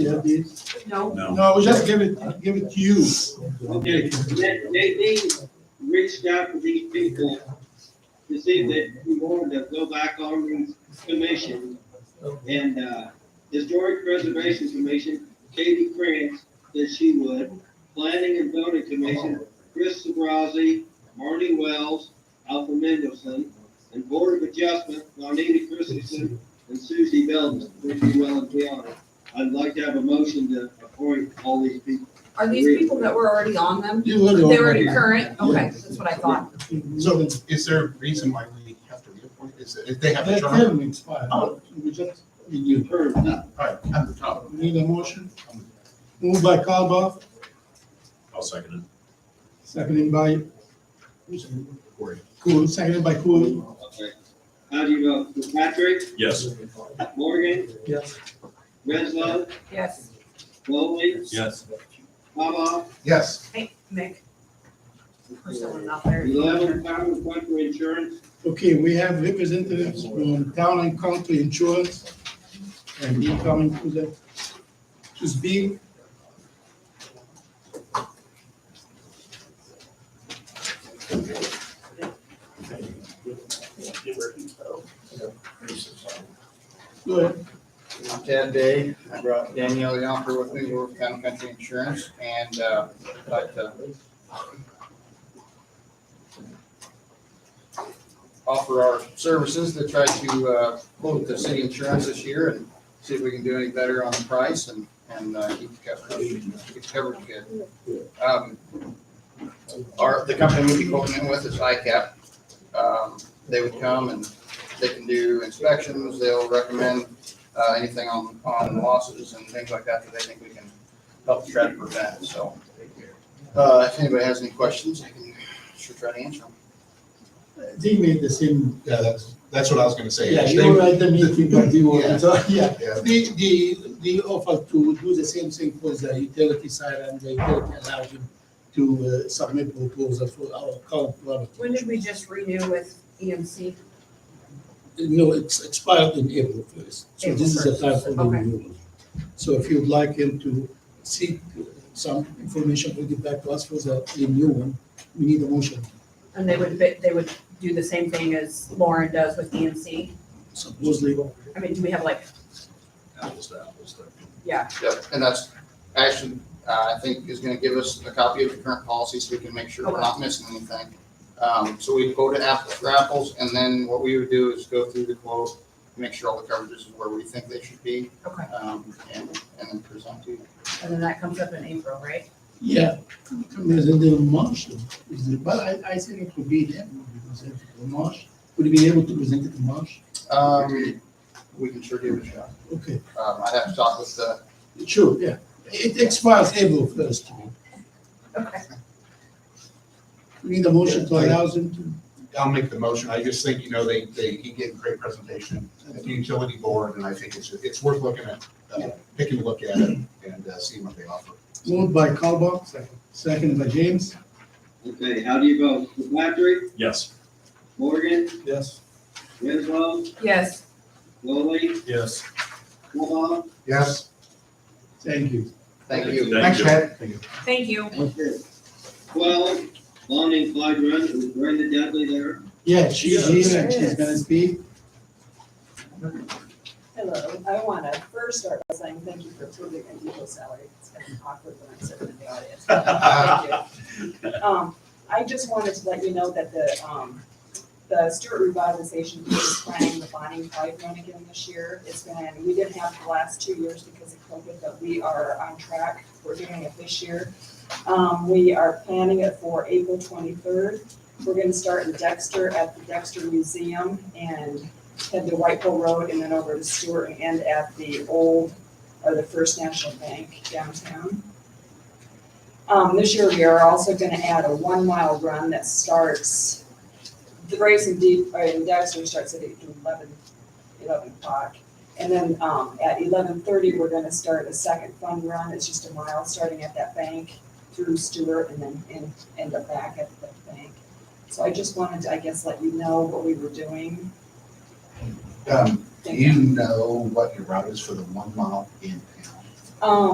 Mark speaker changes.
Speaker 1: of these?
Speaker 2: No,
Speaker 3: No.
Speaker 1: No, we just give it, give it to you.
Speaker 4: Okay, they, they, they reached out to these people to see that we wanted to go back on these commission. And, uh, Historic Preservation Commission, Katie Krantz, that she would, Planning and Building Commission, Chris Sabrazi, Marty Wells, Alpha Mendelson, and Board of Adjustment, Lonita Christensen and Susie Belton, Ricky Well and Keanu. I'd like to have a motion to appoint all these people.
Speaker 2: are these people that were already on them?
Speaker 1: You would
Speaker 2: They
Speaker 1: already.
Speaker 2: were current, okay, that's what I thought.
Speaker 5: So is there a reason why we have to reappoint? Is it, if they have a
Speaker 1: Let
Speaker 5: term?
Speaker 1: them expire.
Speaker 5: Oh.
Speaker 1: We just, you
Speaker 4: Term, not
Speaker 5: All right, at the top.
Speaker 1: need a motion? Moved by Calba,
Speaker 3: I'll second
Speaker 1: seconded by,
Speaker 5: Corey.
Speaker 1: Cool, seconded by Cool.
Speaker 4: Okay. How do you vote? Patrick,
Speaker 3: it. Yes.
Speaker 4: Morgan,
Speaker 1: Yes.
Speaker 4: Renzo,
Speaker 2: Yes,
Speaker 4: Lowly,
Speaker 3: Yes.
Speaker 4: Baba,
Speaker 5: Yes,
Speaker 2: Hey, Mick, or someone out there.
Speaker 4: eleven, common appointment for insurance.
Speaker 1: Okay, we have representatives from town and county insurance, and he coming to the, to speak. Go ahead.
Speaker 6: I'm Ted Day. I brought Danielle Yonker with me. We're with County Country Insurance and, uh, but, uh, offer our services to try to, uh, quote the city insurance this year and see if we can do any better on the price and, and, uh, keep the coverage, keep the coverage good. Um, Our, the company we'd be quoting in with is ICAP. Um, they would come and they can do inspections. They'll recommend uh, anything on, on losses and things like that that they think we can help try to prevent, so. Uh, if anybody has any questions, I can sure try to answer them.
Speaker 1: They made the same,
Speaker 5: yeah, that's, that's what I was gonna say.
Speaker 1: yeah,
Speaker 5: They-
Speaker 1: you were at the meeting, but you were, yeah.
Speaker 5: Yeah.
Speaker 1: The, the, the offer to do the same thing for the utility side and the utility allowed him to uh, submit proposal for our current product.
Speaker 2: When did we just renew with E EMC?
Speaker 1: No, it's expired in April first, so this is the
Speaker 2: April
Speaker 1: time
Speaker 2: 1st,
Speaker 1: for the
Speaker 2: okay.
Speaker 1: renewal. So if you'd like him to seek some information, bring it back to us for the renewal, we need a motion.
Speaker 2: And they would, be- they would do the same thing as Lauren does with EMC?
Speaker 1: Supposedly,
Speaker 2: I mean, do we have like,
Speaker 3: Apples to apples there.
Speaker 2: yeah,
Speaker 6: Yep, and that's, actually, uh, I think is gonna give us a copy of the current policy so we can make sure we're not missing anything. Um, so we go to apples for apples, and then what we would do is go through the quote, make sure all the coverages is where we think they should be,
Speaker 2: okay,
Speaker 6: um, and, and then present to you.
Speaker 2: and then that comes up in April, right?
Speaker 1: yeah, there's a little March, is it- but I, I think it could be in April, because it's in March, would you be able to present it in March?
Speaker 6: Um, we can sure give it a shot.
Speaker 1: Okay,
Speaker 6: Um, I'd have to talk with the
Speaker 1: sure, yeah, it expires April first,
Speaker 2: Okay.
Speaker 1: we need a motion to allow him to.
Speaker 5: I'll make the motion. I just think, you know, they, they, he gave a great presentation at the utility board, and I think it's, it's worth looking at, uh, taking a look at it and uh, seeing what they offer.
Speaker 1: Moved by Calba, second by James.
Speaker 4: Okay, how do you vote? Patrick,
Speaker 3: Yes.
Speaker 4: Morgan,
Speaker 1: Yes.
Speaker 4: Renzo,
Speaker 2: Yes,
Speaker 4: Lowly,
Speaker 3: Yes.
Speaker 4: Baba.
Speaker 5: Yes?
Speaker 1: Thank you.
Speaker 6: Thank you.
Speaker 3: Thank you.
Speaker 5: Ted.
Speaker 2: thank you.
Speaker 4: Twelve, Lonnie and Clyde Run, is Brenda Dudley there?
Speaker 1: Yeah, she's here and she's gonna speak.
Speaker 7: Hello, I want to first start by saying thank you for approving my legal salary. It's kind of awkward when I'm sitting in the audience. Thank you. Um, I just wanted to let you know that the, um, the Stewart Revitalization Committee is planning the Bonnie Clyde Run again this year. It's been, we didn't have the last two years because of COVID, but we are on track. We're doing it this year. Um, we are planning it for April twenty-third. We're going to start in Dexter at the Dexter Museum and head to Whiteville Road and then over to Stewart and end at the old, or the First National Bank downtown. Um, this year we are also gonna add a one-mile run that starts, the race in deep, or in Dexter starts at 11 11 o'clock. And then, um, at eleven thirty, we're gonna start a second fun run, it's just a mile, starting at that bank through Stewart and then end, end up back at the bank. So I just wanted to, I guess, let you know what we were doing
Speaker 5: Um, do you know what your route is for the one mile in town?
Speaker 7: Um,